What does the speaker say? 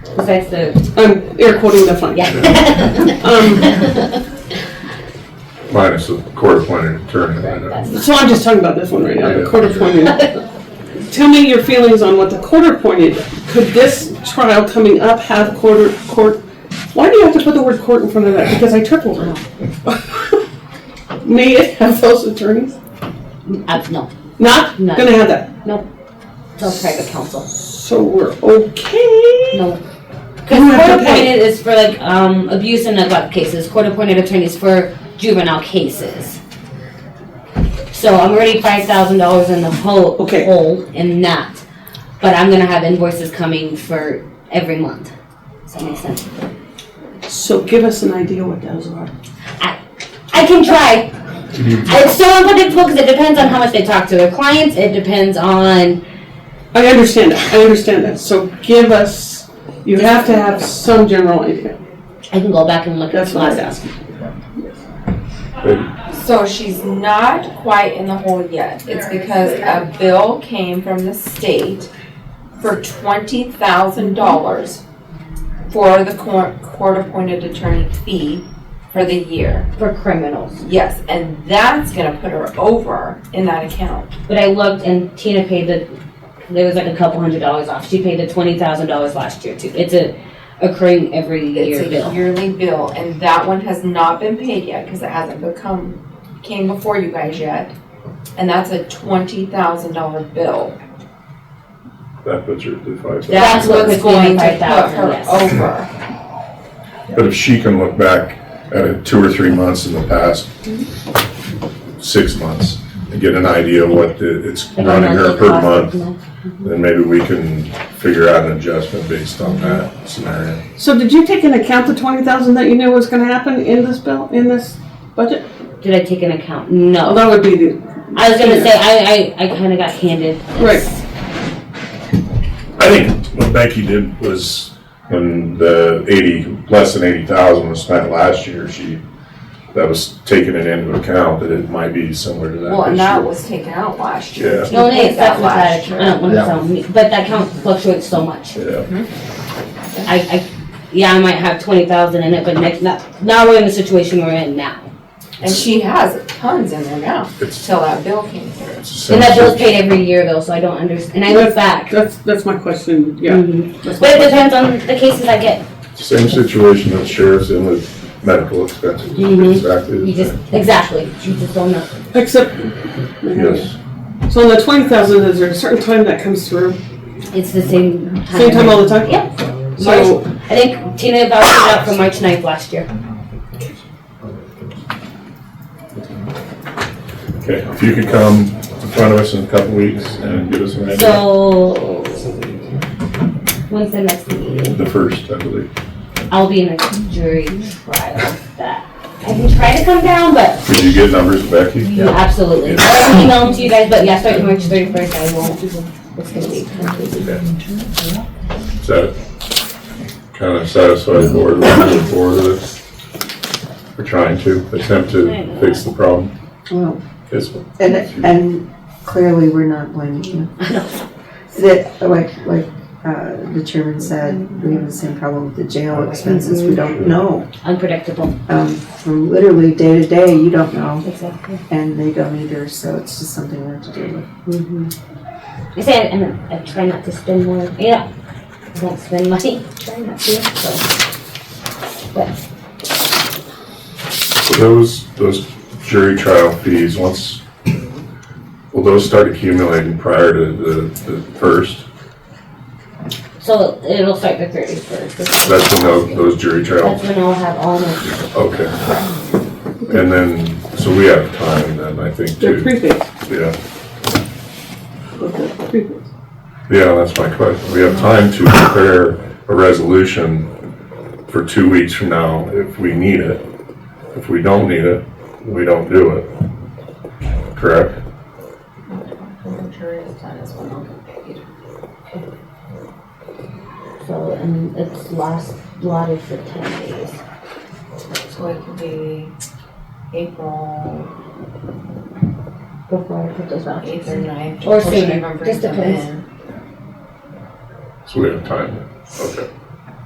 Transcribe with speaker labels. Speaker 1: because that's the,
Speaker 2: I'm air quoting the Um, fund.
Speaker 1: yeah.
Speaker 3: Minus the court-appointed attorney.
Speaker 1: Right, that's-
Speaker 2: So I'm just talking about this one right now, the
Speaker 3: Yeah.
Speaker 2: court appointed. Tell me your feelings on what the court appointed, could this trial coming up have court, court, why do you have to put the word court in front of that? Because I tripled it. May it have those attorneys?
Speaker 1: Uh, no,
Speaker 2: Not
Speaker 1: No.
Speaker 2: gonna have that.
Speaker 1: no, no private counsel,
Speaker 2: So we're okay?
Speaker 1: no.
Speaker 2: Who
Speaker 1: Because
Speaker 2: have
Speaker 1: court
Speaker 2: to pay?
Speaker 1: appointed is for like, um, abuse and neglect cases, court appointed attorneys for juvenile cases. So I'm already five thousand dollars in the hole,
Speaker 2: Okay.
Speaker 1: hole in that, but I'm gonna have invoices coming for every month. Does that make sense?
Speaker 2: So give us an idea what those are.
Speaker 1: I can try.
Speaker 2: Mm-hmm.
Speaker 1: It's so unpredictable because it depends on how much they talk to their clients. It depends on
Speaker 2: I understand that, I understand that, so give us, you have to have some general idea,
Speaker 1: I can go back and look at
Speaker 2: that's
Speaker 1: the
Speaker 2: what I was
Speaker 1: last.
Speaker 2: asking.
Speaker 4: So she's not quite in the hole yet. It's because a bill came from the state for twenty thousand dollars for the court, court-appointed attorney fee for the year.
Speaker 1: for criminals.
Speaker 4: Yes, and that's gonna put her over in that account.
Speaker 1: But I looked and Tina paid the there was like a couple hundred dollars off. She paid the twenty thousand dollars last year too. It's a occurring every year
Speaker 4: It's a
Speaker 1: bill.
Speaker 4: yearly bill, and that one has not been paid yet, cause it hasn't become, came before you guys yet. And that's a twenty thousand dollar bill.
Speaker 3: That puts her to five thousand.
Speaker 1: That's
Speaker 4: That's
Speaker 1: what
Speaker 4: what's
Speaker 1: puts me in
Speaker 4: going to
Speaker 1: five
Speaker 4: put
Speaker 1: thousand,
Speaker 4: her
Speaker 1: yes.
Speaker 4: over.
Speaker 3: But if she can look back at it two or three months in the past, six months, and get an idea of what the- it's
Speaker 1: Like a
Speaker 3: running her
Speaker 1: monthly
Speaker 3: per
Speaker 1: cost.
Speaker 3: month, then maybe we can figure out an adjustment based on that scenario.
Speaker 2: So did you take into account the twenty thousand that you knew was gonna happen in this bill, in this budget?
Speaker 1: Did I take an account?
Speaker 2: Oh,
Speaker 1: No.
Speaker 2: that would be the,
Speaker 1: I was gonna say I I, I kinda got handed
Speaker 2: Right.
Speaker 1: this.
Speaker 3: I think what Becky did was when the eighty, less than eighty thousand was spent last year, she, that was taking it into account that it might be similar to that this year.
Speaker 4: Well, and that was taken out last year.
Speaker 3: Yeah.
Speaker 4: She
Speaker 1: No,
Speaker 4: paid
Speaker 1: they accept
Speaker 4: last
Speaker 1: that
Speaker 4: year.
Speaker 1: account, I don't wanna sound mean, but that account fluctuates so much.
Speaker 3: Yeah.
Speaker 1: I, I, yeah, I might have twenty thousand in it, but next, now, now we're in the situation we're in now.
Speaker 4: And she has tons in there now,
Speaker 3: It's-
Speaker 4: till that bill came through.
Speaker 3: It's the
Speaker 1: And that
Speaker 3: same-
Speaker 1: bill's paid every year though, so I don't understand, and I look back.
Speaker 2: that's, that's my question, yeah.
Speaker 1: Mhm.
Speaker 2: that's my
Speaker 1: But it
Speaker 2: question.
Speaker 1: depends on the cases I get.
Speaker 3: Same situation that sheriff's in with medical expenses,
Speaker 1: Mhm.
Speaker 3: exactly
Speaker 1: You
Speaker 3: the
Speaker 1: just,
Speaker 3: same.
Speaker 1: exactly, you just don't know.
Speaker 2: Except.
Speaker 3: Yes,
Speaker 2: So the twenty thousand, is there a certain time that comes through?
Speaker 1: It's the same time.
Speaker 2: Same time all the time?
Speaker 1: Yep.
Speaker 2: So,
Speaker 1: I think Tina vouched it out for March 9th last year.
Speaker 3: okay, if you could come in front of us in a couple weeks and give us an idea,
Speaker 1: So, when's the next meeting?
Speaker 3: the first, I believe.
Speaker 1: I'll be in a jury trial that, I can try to come down, but
Speaker 3: Could you get numbers, Becky?
Speaker 1: Yeah, absolutely. I'll email them to you guys, but yeah, starting March thirty-first, I won't, it's gonna be completely.
Speaker 3: Is that kind of satisfied the board, with moving forward with this? We're trying to attempt to fix the problem.
Speaker 5: Well,
Speaker 3: Yes,
Speaker 5: and, and clearly, we're not blaming you. That, like, like, uh, the chairman said, we have the same problem with the jail expenses, we don't know.
Speaker 1: Unpredictable.
Speaker 5: Um, from literally day to day, you don't know,
Speaker 1: Exactly.
Speaker 5: and they don't either, so it's just something we have to deal with.
Speaker 1: I say, and I I try not to spend more, yeah, I don't spend money, try not to, so.
Speaker 3: So Those, those jury trial fees, once, will those start accumulating prior to the, the first?
Speaker 1: So it'll start the thirty-first.
Speaker 3: That's when those, those jury
Speaker 1: That's
Speaker 3: trials,
Speaker 1: when I'll have all my,
Speaker 3: okay. And then, so we have time then, I think,
Speaker 2: they're
Speaker 3: too.
Speaker 2: prepaid,
Speaker 3: Yeah,
Speaker 2: okay, prepaid.
Speaker 3: yeah, that's my question. We have time to prepare a resolution for two weeks from now if we need it. If we don't need it, we don't do it. Correct?
Speaker 1: so, and it's last, lotted for ten days.
Speaker 4: So it could be April
Speaker 1: Before I put those out.
Speaker 4: eighth or ninth.
Speaker 1: Or
Speaker 4: before she
Speaker 1: sooner,
Speaker 4: even
Speaker 1: just
Speaker 4: brings them
Speaker 1: depends.
Speaker 4: in.
Speaker 3: So we have time, okay.